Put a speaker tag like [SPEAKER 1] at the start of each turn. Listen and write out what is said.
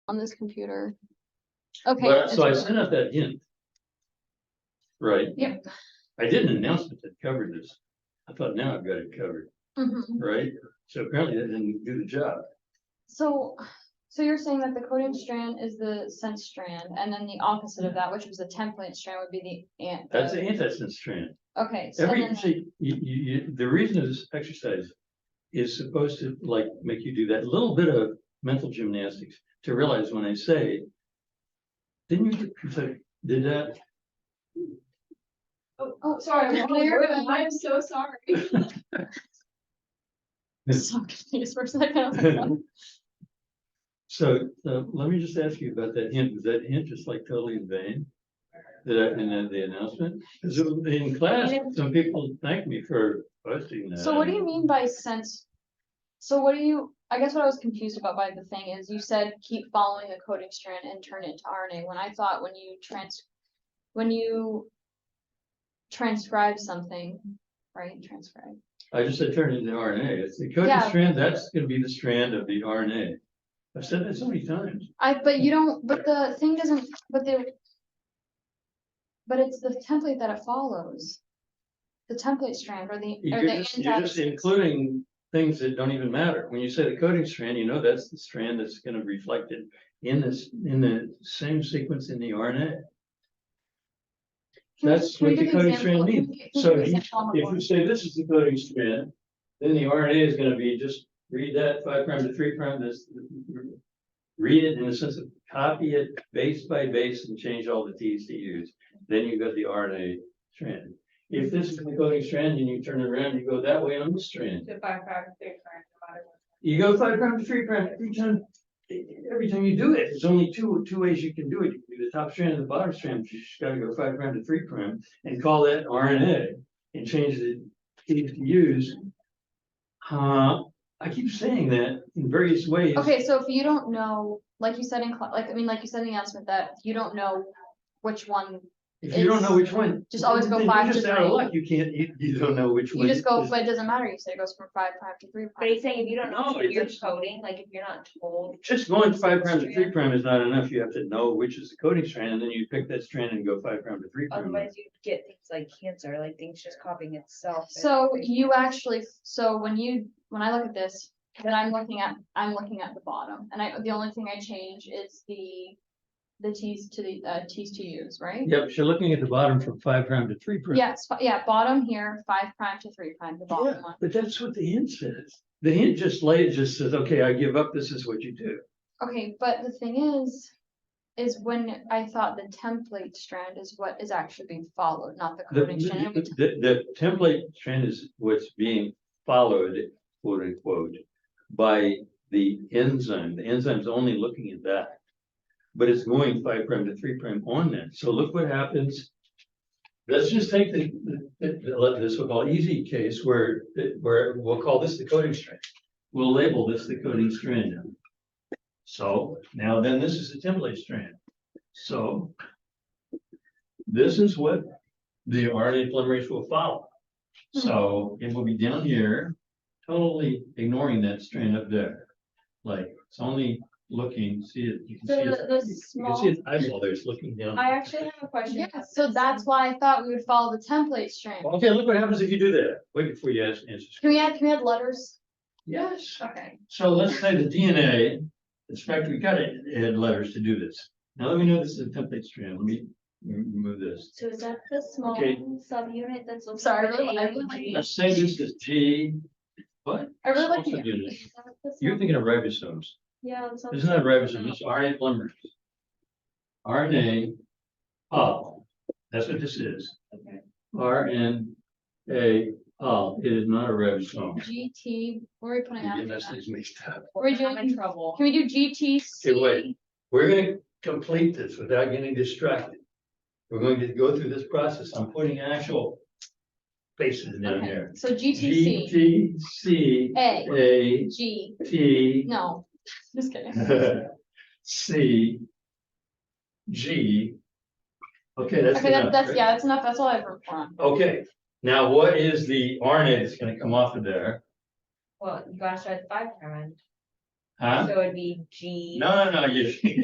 [SPEAKER 1] on this computer. Okay.
[SPEAKER 2] But-
[SPEAKER 1] it's
[SPEAKER 2] So I
[SPEAKER 1] okay.
[SPEAKER 2] sent out that hint. Right?
[SPEAKER 1] Yep.
[SPEAKER 2] I did an announcement that covered this. I thought now I've got it covered,
[SPEAKER 1] Mhm.
[SPEAKER 2] right? So apparently that didn't do the job.
[SPEAKER 1] So, so you're saying that the coded strand is the sense strand, and then the opposite of that, which was the template strand, would be the ant.
[SPEAKER 2] That's the antisense strand.
[SPEAKER 1] Okay, so
[SPEAKER 2] Every,
[SPEAKER 1] then,
[SPEAKER 2] see, you, you, you, the reason this exercise is supposed to like make you do that little bit of mental gymnastics to realize when I say. Didn't you, you say, did that?
[SPEAKER 1] oh, sorry, I'm clear, but I'm
[SPEAKER 3] I'm so sorry.
[SPEAKER 1] so confused for a second. I was like,
[SPEAKER 2] So, uh, let me just ask you about that hint, was that hint just like totally in vain? That I, in the- the announcement, 'Cause it- in class, some people thanked me for posting that.
[SPEAKER 1] So what do you mean by sense? So what do you, I guess what I was confused about by the thing is you said keep following the coding strand and turn it into RNA, when I thought when you trans, when you transcribe something, right, transcribe,
[SPEAKER 2] I just said turn it into RNA, it's the coding
[SPEAKER 1] Yeah.
[SPEAKER 2] strand, that's gonna be the strand of the RNA. I've said that so many times,
[SPEAKER 1] I, but you don't, but the thing doesn't, but the but it's the template that it follows, the template strand or the, or
[SPEAKER 2] you're
[SPEAKER 1] the.
[SPEAKER 2] just, you're just
[SPEAKER 1] antithesis.
[SPEAKER 2] including things that don't even matter. When you say the coding strand, you know that's the strand that's gonna reflect it in this, in the same sequence in the RNA.
[SPEAKER 1] Can you-
[SPEAKER 2] that's
[SPEAKER 1] can you
[SPEAKER 2] what the
[SPEAKER 1] give
[SPEAKER 2] coding
[SPEAKER 1] example-
[SPEAKER 2] strand
[SPEAKER 1] can you
[SPEAKER 2] means.
[SPEAKER 1] gi- can you
[SPEAKER 2] So
[SPEAKER 1] give
[SPEAKER 2] you-
[SPEAKER 1] example on the
[SPEAKER 2] If
[SPEAKER 1] board?
[SPEAKER 2] you say this is the coding strand, then the RNA is gonna be just read that five prime to three prime, this. Read it in the sense of copy it base by base and change all the Ts to Us, then you've got the RNA strand. If this is the coding strand and you turn it around, you go that way on this strand.
[SPEAKER 3] The five, five, six, nine, no matter what.
[SPEAKER 2] You go five prime to three prime every time, every time you do it, there's only two, two ways you can do it. You can do the top strand and the bottom strand, you just gotta go five prime to three prime and call that RNA and change the T to use. Uh, I keep saying that in various ways.
[SPEAKER 1] Okay, so if you don't know, like you said in, cla- like, I mean, like you said in the announcement that you don't know which one,
[SPEAKER 2] If you don't know which one.
[SPEAKER 1] Just always go
[SPEAKER 2] then
[SPEAKER 1] five
[SPEAKER 2] You're
[SPEAKER 1] to
[SPEAKER 2] just out of
[SPEAKER 1] three.
[SPEAKER 2] luck, you can't, you, you don't know which one.
[SPEAKER 1] you just go,
[SPEAKER 2] is-
[SPEAKER 1] but it doesn't matter, you said it goes from five prime to three
[SPEAKER 3] But
[SPEAKER 1] prime.
[SPEAKER 3] he's saying if you don't know
[SPEAKER 2] No,
[SPEAKER 3] what
[SPEAKER 2] it's
[SPEAKER 3] you're
[SPEAKER 2] just-
[SPEAKER 3] coding, like if you're not told.
[SPEAKER 2] Just going five prime to three prime is not enough, you have to know which is the coding strand, and then you pick that strand and go five prime to three prime.
[SPEAKER 3] Otherwise you get things like cancer, like things just copying itself. and-
[SPEAKER 1] So you actually, so when you, when I look at this, then I'm looking at, I'm looking at the bottom, and I, the only thing I change is the, the T's to the, uh, T's to U's, right?
[SPEAKER 2] Yep, so looking at the bottom from five prime to three prime.
[SPEAKER 1] Yes, fi- yeah, bottom here, five prime to three prime, the bottom one.
[SPEAKER 2] But that's what the hint says. The hint just lays, just says, okay, I give up, this is what you do.
[SPEAKER 1] Okay, but the thing is, is when I thought the template strand is what is actually being followed, not the
[SPEAKER 2] The,
[SPEAKER 1] coding strand. and we t-
[SPEAKER 2] the- the template trend is what's being followed, quote unquote, by the enzyme. The enzyme's only looking at that. But it's going five prime to three prime on that. So look what happens. Let's just take the, the- the- let this we'll call easy case where, where we'll call this the coding strand. We'll label this the coding strand. now. So now then this is the template strand. So this is what the RNA polymerase will follow.
[SPEAKER 3] Hmm.
[SPEAKER 2] So it will be down here, totally ignoring that strand up there. Like, it's only looking, see it, you can see
[SPEAKER 3] So
[SPEAKER 2] it.
[SPEAKER 3] the, the
[SPEAKER 2] You can
[SPEAKER 3] small,
[SPEAKER 2] see its eyeball there, it's looking down.
[SPEAKER 3] I actually have a question.
[SPEAKER 1] Yeah,
[SPEAKER 3] about
[SPEAKER 1] so
[SPEAKER 3] this.
[SPEAKER 1] that's why I thought we would follow the template strand.
[SPEAKER 2] Okay, look what happens if you do that. Wait before you ask, answer.
[SPEAKER 1] Can we add, can we add letters?
[SPEAKER 2] Yes.
[SPEAKER 3] Okay.
[SPEAKER 2] So let's say the DNA, in fact, we got it, had letters to do this. Now let me know this is a template strand. Let me m- move this.
[SPEAKER 3] So is that the small
[SPEAKER 2] Okay.
[SPEAKER 3] subunit that's? looking
[SPEAKER 1] Sorry, I
[SPEAKER 3] like
[SPEAKER 1] really- I
[SPEAKER 3] A
[SPEAKER 1] really
[SPEAKER 3] and
[SPEAKER 1] like
[SPEAKER 3] G?
[SPEAKER 1] that.
[SPEAKER 2] Let's say this is G, what?
[SPEAKER 1] I really like
[SPEAKER 2] Small
[SPEAKER 1] the-
[SPEAKER 2] subunit.
[SPEAKER 3] Is that the
[SPEAKER 2] You're
[SPEAKER 3] small-
[SPEAKER 2] thinking of ribosomes.
[SPEAKER 3] Yeah. that's what I'm
[SPEAKER 2] It's not
[SPEAKER 3] saying.
[SPEAKER 2] ribosome, it's RNA polymerase. RNA, oh, that's what this is.
[SPEAKER 3] Okay.
[SPEAKER 2] RNA, oh, it is not a ribosome.
[SPEAKER 1] GT, what are we putting
[SPEAKER 2] You're
[SPEAKER 1] out?
[SPEAKER 2] getting those
[SPEAKER 1] Can
[SPEAKER 2] things mixed up.
[SPEAKER 1] We're
[SPEAKER 3] I'm in
[SPEAKER 1] doing-
[SPEAKER 3] trouble.
[SPEAKER 1] we do
[SPEAKER 2] Okay, wait.
[SPEAKER 1] GTC?
[SPEAKER 2] We're gonna complete this without getting distracted. We're going to go through this process. I'm putting actual faces down
[SPEAKER 1] Okay,
[SPEAKER 2] here.
[SPEAKER 1] so GTC,
[SPEAKER 2] G, T, C,
[SPEAKER 1] A,
[SPEAKER 2] A,
[SPEAKER 1] G,
[SPEAKER 2] T,
[SPEAKER 1] no, just kidding.
[SPEAKER 2] C. G. Okay, that's
[SPEAKER 1] Okay, that-
[SPEAKER 2] enough.
[SPEAKER 1] that's,
[SPEAKER 2] right?
[SPEAKER 1] yeah, that's enough, that's all I've heard from.
[SPEAKER 2] Okay, now what is the RNA that's gonna come off of there?
[SPEAKER 3] Well, you gotta start at the five prime,
[SPEAKER 2] Huh?
[SPEAKER 3] so it'd be G.
[SPEAKER 2] No, no, no, you,